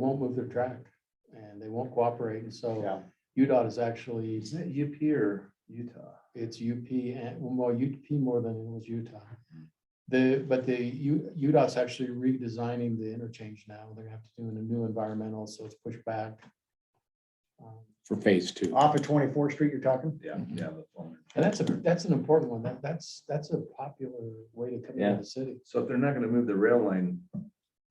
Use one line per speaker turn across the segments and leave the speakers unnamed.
won't move their track and they won't cooperate. And so
Yeah.
UDOT is actually,
Is that UP or Utah?
it's UP and, well, UP more than it was Utah. The, but the U, UDOT's actually redesigning the interchange now. They're gonna have to do a new environmental, so it's pushed back. Um,
for phase two.
Off of Twenty-Fourth Street you're talking?
Yeah,
Mm-hmm.
yeah. the phone.
And that's a, that's an important one. That, that's, that's a popular way to come
Yeah.
into the city.
So if they're not gonna move the rail line, are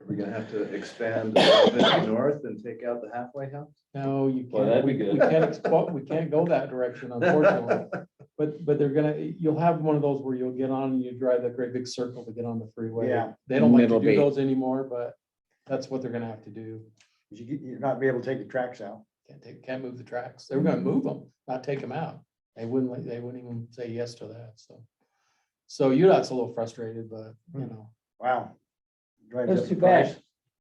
we gonna have to expand a little bit north and take out the halfway house?
No, you
Well,
can't,
that'd
we
be
we
good.
can't, expo- we can't go that direction unfortunately. But, but they're gonna, you'll have one of those where you'll get on and you drive that great big circle to get on the freeway.
Yeah.
They don't like to
Middle
do
Bay.
those anymore, but that's what they're gonna have to do.
You, get- you're not be able to take the tracks out.
Can't take, can't move the tracks. They were gonna move them, not take them out. They wouldn't, let- they wouldn't even say yes to that, so. So UDOT's a little frustrated, but you know,
Wow. Drives up
That's
the
too bad,
price.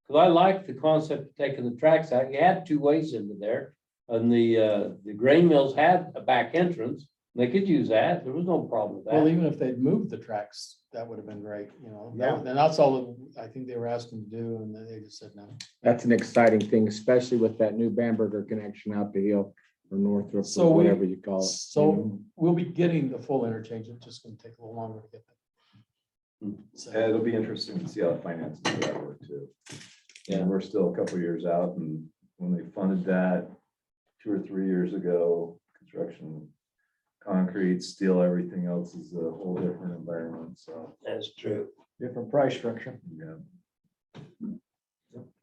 because I like the concept of taking the tracks out. You had two ways into there. And the, uh, the grain mills had a back entrance. and They could use that. There was no problem with
well,
that.
even if they'd moved the tracks, that would have been great, you know.
Yeah.
And that's all I think they were asking to do and then they just said no.
That's an exciting thing, especially with that new Bamberger connection out the hill or Northrop
So
or
we-
whatever you call it. you know?
So we'll be getting the full interchange. It's just gonna take a little longer to get there.
Hmm.
Yeah,
So,
Uh, It'll be interesting to see how the finances of that work too.
Yeah.
And we're still a couple years out and when they funded that two or three years ago, construction, concrete, steel, everything else is a whole different environment, so.
That's true.
Different price structure.
yeah.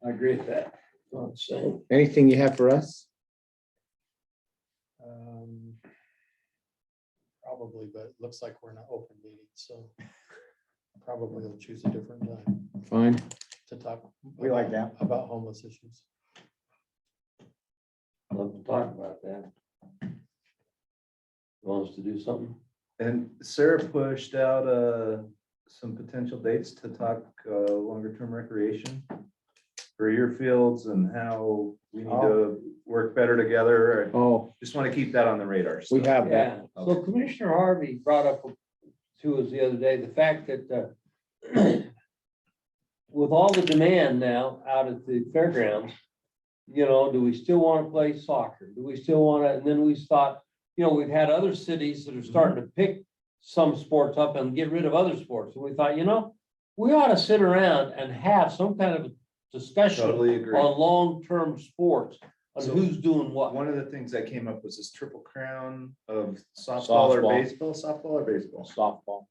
I agree with that. Not saying.
Anything you have for us?
um, Probably, but it looks like we're in an open meeting, so probably we'll choose a different time
Fine.
to talk.
We like that.
About homeless issues.
Love to talk about that. Wants to do something?
And Sarah pushed out uh, some potential dates to talk uh, longer-term recreation for your fields and how we need
Oh.
to work better together. I
Oh,
Just want to keep that on the radar.
we
so.
have that.
Yeah, so Commissioner Harvey brought up to us the other day, the fact that uh, with all the demand now out at the fairgrounds, you know, do we still want to play soccer? Do we still want to, and then we thought, you know, we've had other cities that are
Mm-hmm.
starting to pick some sports up and get rid of other sports. And we thought, you know, we ought to sit around and have some kind of discussion
Totally agree.
on long-term sports, on
So-
who's doing what.
One of the things that came up was this triple crown of softball or
Softball.
baseball, softball or baseball.
Softball.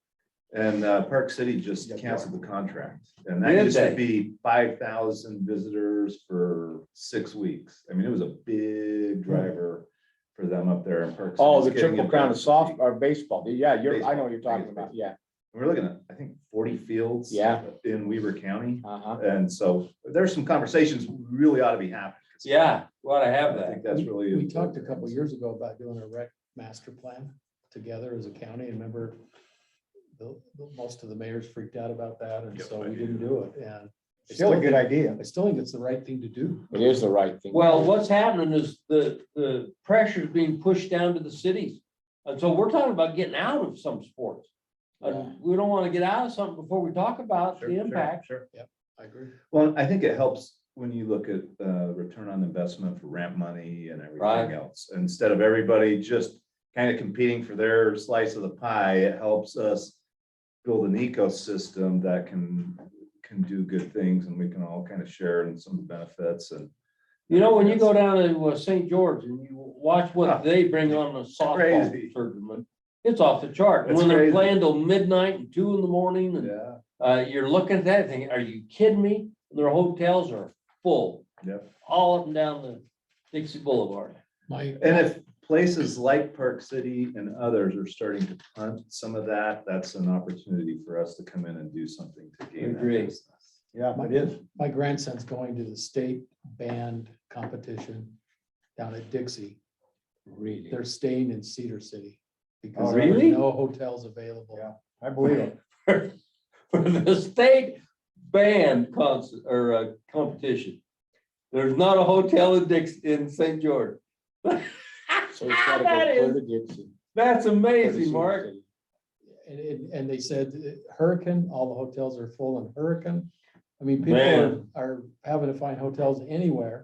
And uh, Park City just
Yeah.
canceled the contract. And that
Did
used to
they?
be five thousand visitors for six weeks. I mean, it was a big driver for them up there in Park. City.
Hmm. Oh,
It's
the
getting
triple crown of
advanced.
soft or baseball. Yeah, you're, I know what you're
Baseball, I
talking
think it's
about. Yeah.
We're looking at, I think, forty fields.
Yeah.
In Weaver County.
Uh-huh.
And so there's some conversations we really ought to be happening.
Yeah, we ought to have
I
that.
think that's
We-
really.
We talked a couple
important.
years ago about doing a rec master plan together as a county, and remember the, the- most of the mayors freaked out about that, and
Yep,
so
I
we
do.
didn't do it, and I
Still a
still
good
think,
idea.
I still think it's the right thing to do.
It is the right thing.
Well, what's happening is the, the pressure's being pushed down to the cities. And so we're talking about getting out of some sports.
Yeah.
And we don't want to get out of something before we talk about
Sure,
the
sure,
impact.
Sure.
I agree.
Well, I think it helps when you look at uh return on investment for ramp money and
Right.
everything else. Instead of everybody just kind of competing for their slice of the pie, it helps us build an ecosystem that can, can do good things and we can all kind of share in some benefits and.
You know, when you go down to uh, St. George and you watch
Huh.
what they bring on the
Crazy.
softball tournament, it's off the chart. And
It's
when they're
crazy.
playing till midnight and two in the morning and,
Yeah,
uh, you're looking at that thing, are you kidding me? Their hotels are full.
Yep.
All up and down the Dixie Boulevard.
My,
and if places like Park City and others are starting to punt some of that, that's an opportunity for us to come in and do something to gain that
Agree.
business.
Yeah, it is.
my grandson's going to the state band competition down at Dixie.
Really.
They're staying in Cedar City because
Oh,
there are
really?
no hotels available.
Yeah. I believe it.
for the state band concert or uh, competition. There's not a hotel in Dix, in St. George.
So it's gotta go
That is-
further Gibson.
That's
further
amazing, Mark.
Gibson.
And, and, and they said uh, hurricane, all the hotels are full in hurricane. I mean, people are,
Man.
are having to find hotels anywhere.